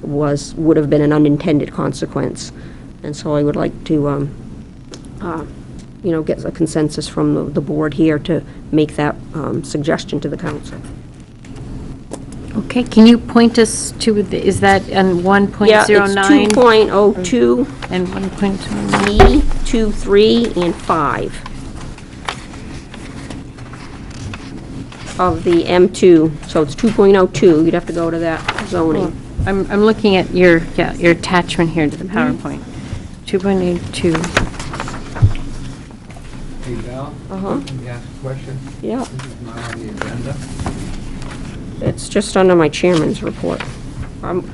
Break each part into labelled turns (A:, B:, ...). A: was, would have been an unintended consequence. And so I would like to, um, uh, you know, get a consensus from the- the board here to make that um, suggestion to the council.
B: Okay, can you point us to, the- is that on 1.09?
A: Yeah, it's 2.02,
B: And 1.09?
A: B, 2, 3, E, and 5 of the M2. So it's 2.02, you'd have to go to that zoning.
B: I'm, I'm looking at your, yeah, your attachment here to the
C: Mm-hmm.
B: PowerPoint. 2.82,
D: Hey, Val?
A: Uh-huh.
D: Can you ask a question?
A: Yeah,
D: This is not on the agenda.
A: it's just under my chairman's report. I'm,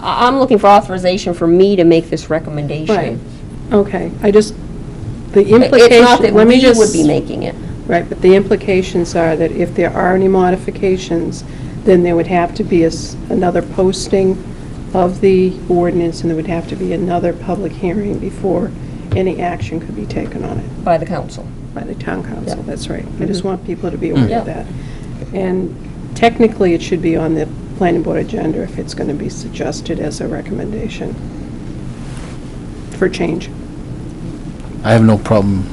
A: I- I'm looking for authorization for me to make this recommendation.
C: Right. Okay, I just, the
A: It's not that
C: implication, let me
A: we
C: just...
A: would be making it.
C: Right, but the implications are that if there are any modifications, then there would have to be a s- another posting of the ordinance, and there would have to be another public hearing before any action could be taken on it
A: By the council.
C: by the town council,
A: Yeah. Mm-hmm.
C: that's right. I just want people to be aware
A: Yeah.
C: of that. And technically, it should be on the planning board agenda if it's going to be suggested as a recommendation for change.
E: I have no problem.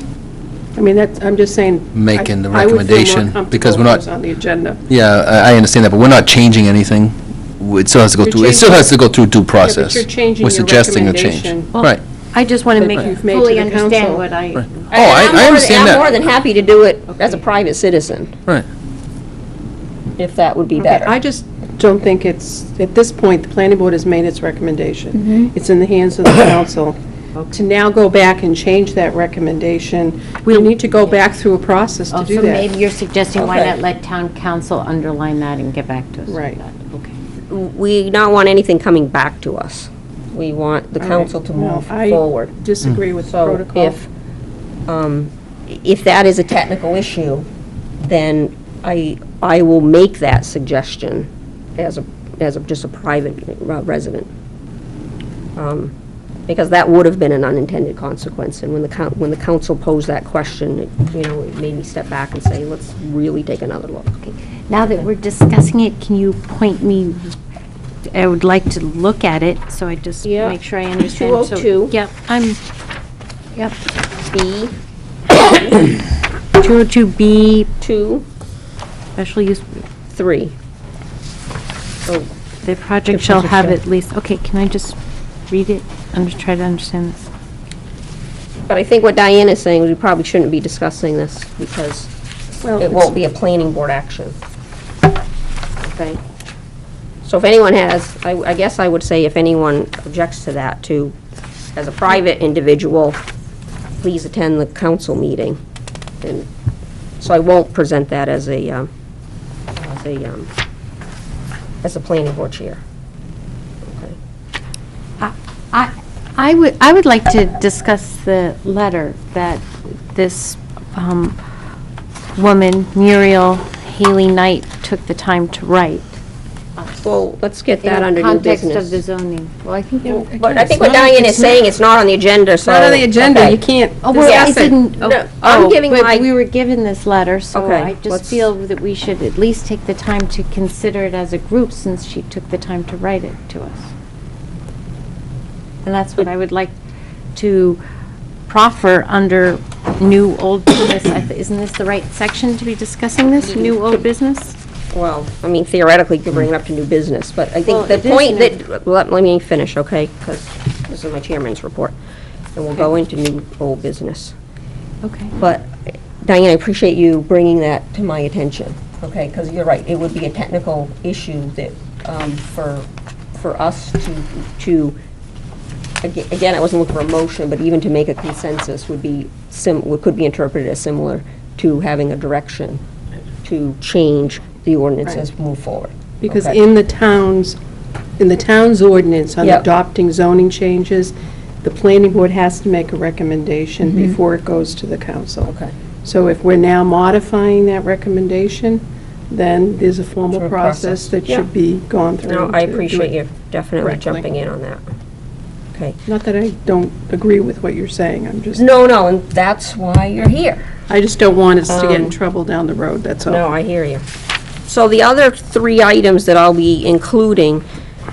C: I mean, that's, I'm just saying.
E: Making the
C: I- I would feel more
E: recommendation, because
C: comfortable if it
E: we're not-
C: was on the agenda.
E: Yeah, I I understand that, but we're not changing anything. It still has to go
C: You're
E: through, it still
C: changing-
E: has to go through due
C: Yeah, but
E: process.
C: you're changing
E: We're
C: your
E: suggesting a change.
C: recommendation.
E: Right.
B: I just want to
C: That
B: make you
C: you've made to
B: fully
C: the
B: understand
C: council.
B: what I,
E: Oh, I
A: I'm more
E: I
A: than-
E: understand
A: I'm more
E: that.
A: than happy to do it as a private citizen,
E: Right.
A: if that would be
C: Okay,
A: better.
C: I just don't think it's, at this point, the planning board has made its
B: Mm-hmm.
C: recommendation. It's in the hands of the council. To now go back and change that recommendation, we need to go back through a process
B: oh,
C: to do
B: so maybe
C: that.
B: you're suggesting why
A: Okay.
B: not let town council underline that and get back to us? with
C: Right.
B: that. Okay.
A: We don't want anything coming back to us. We want the council to
C: No,
A: move
C: I
A: forward.
C: Disagree with the
A: So
C: protocol.
A: if, um, if that is a technical issue, then I, I will make that suggestion as a, as a, just a private resident. Um, Because that would have been an unintended consequence, and when the, coun- when the council posed that question, it, you know, it made me step back and say, let's really take another look.
B: Now that we're discussing it, can you point me, I would like to look at it, so I just
A: Yeah.
B: make sure I understand. So-
A: 202.
B: Yep, I'm, yep,
A: B,
B: 202B,
A: two,
B: special use,
A: three. So
B: the project shall
A: project
B: have
A: shall-
B: at least, okay, can I just read it? I'm just trying to understand this.
A: But I think what Diane is saying is we probably shouldn't be discussing this because
C: Well,
A: it won't be a planning board action. Okay? So if anyone has, I, I guess I would say if anyone objects to that, to, as a private individual, please attend the council meeting. And so I won't present that as a, um, as a, um, as a planning board chair. Okay.
B: I, I would, I would like to discuss the letter that this um, woman, Muriel Haley Knight, took the time to write.
A: Well, let's get that under new business.
B: In the context of the zoning. Well, I think.
C: Yeah,
A: But I think
C: It's
A: what
C: not-
A: Diane
C: it's
A: is saying, it's not on the agenda, so.
C: Not on the agenda,
A: okay.
C: you can't
B: Oh, well, I
C: discuss it.
B: didn't,
A: No,
B: oh,
A: I'm giving my-
B: but we were given this letter, so
A: Okay,
B: I
A: let's-
B: just feel that we should at least take the time to consider it as a group since she took the time to write it to us. And that's what I would like to proffer under new, old business. I th- Isn't this the right section to be discussing this, new, old business?
A: Well, I mean theoretically, you could bring it up to new business, but I
B: Well,
A: think the
B: it is
A: point
B: new-
A: that, let let me finish, okay? Because this is my chairman's report, and we'll go into new old business.
B: Okay.
A: But Diane, I appreciate you bringing that to my attention, okay? Because you're right, it would be a technical issue that, um, for, for us to, to, aga- again, I wasn't looking for a motion, but even to make a consensus would be sim, would- could be interpreted as similar to having a direction to change the ordinance as we move forward.
C: Because
A: Okay.
C: in the towns, in the town's ordinance on
A: Yep.
C: adopting zoning changes, the planning board has to make a recommendation before it goes to the council.
A: Mm-hmm. Okay.
C: So if we're now modifying that recommendation, then there's a
A: Through
C: formal
A: a process.
C: process that
A: Yeah.
C: should be gone through.
A: No, I
C: to do
A: appreciate
C: it.
A: you definitely
C: correctly.
A: jumping in on that. Okay.
C: Not that I don't agree with what you're saying, I'm just,
A: No, no, and that's why you're here.
C: I just don't want us to get
A: Um,
C: in trouble down the road, that's all.
A: No, I hear you. So the other three items that I'll be including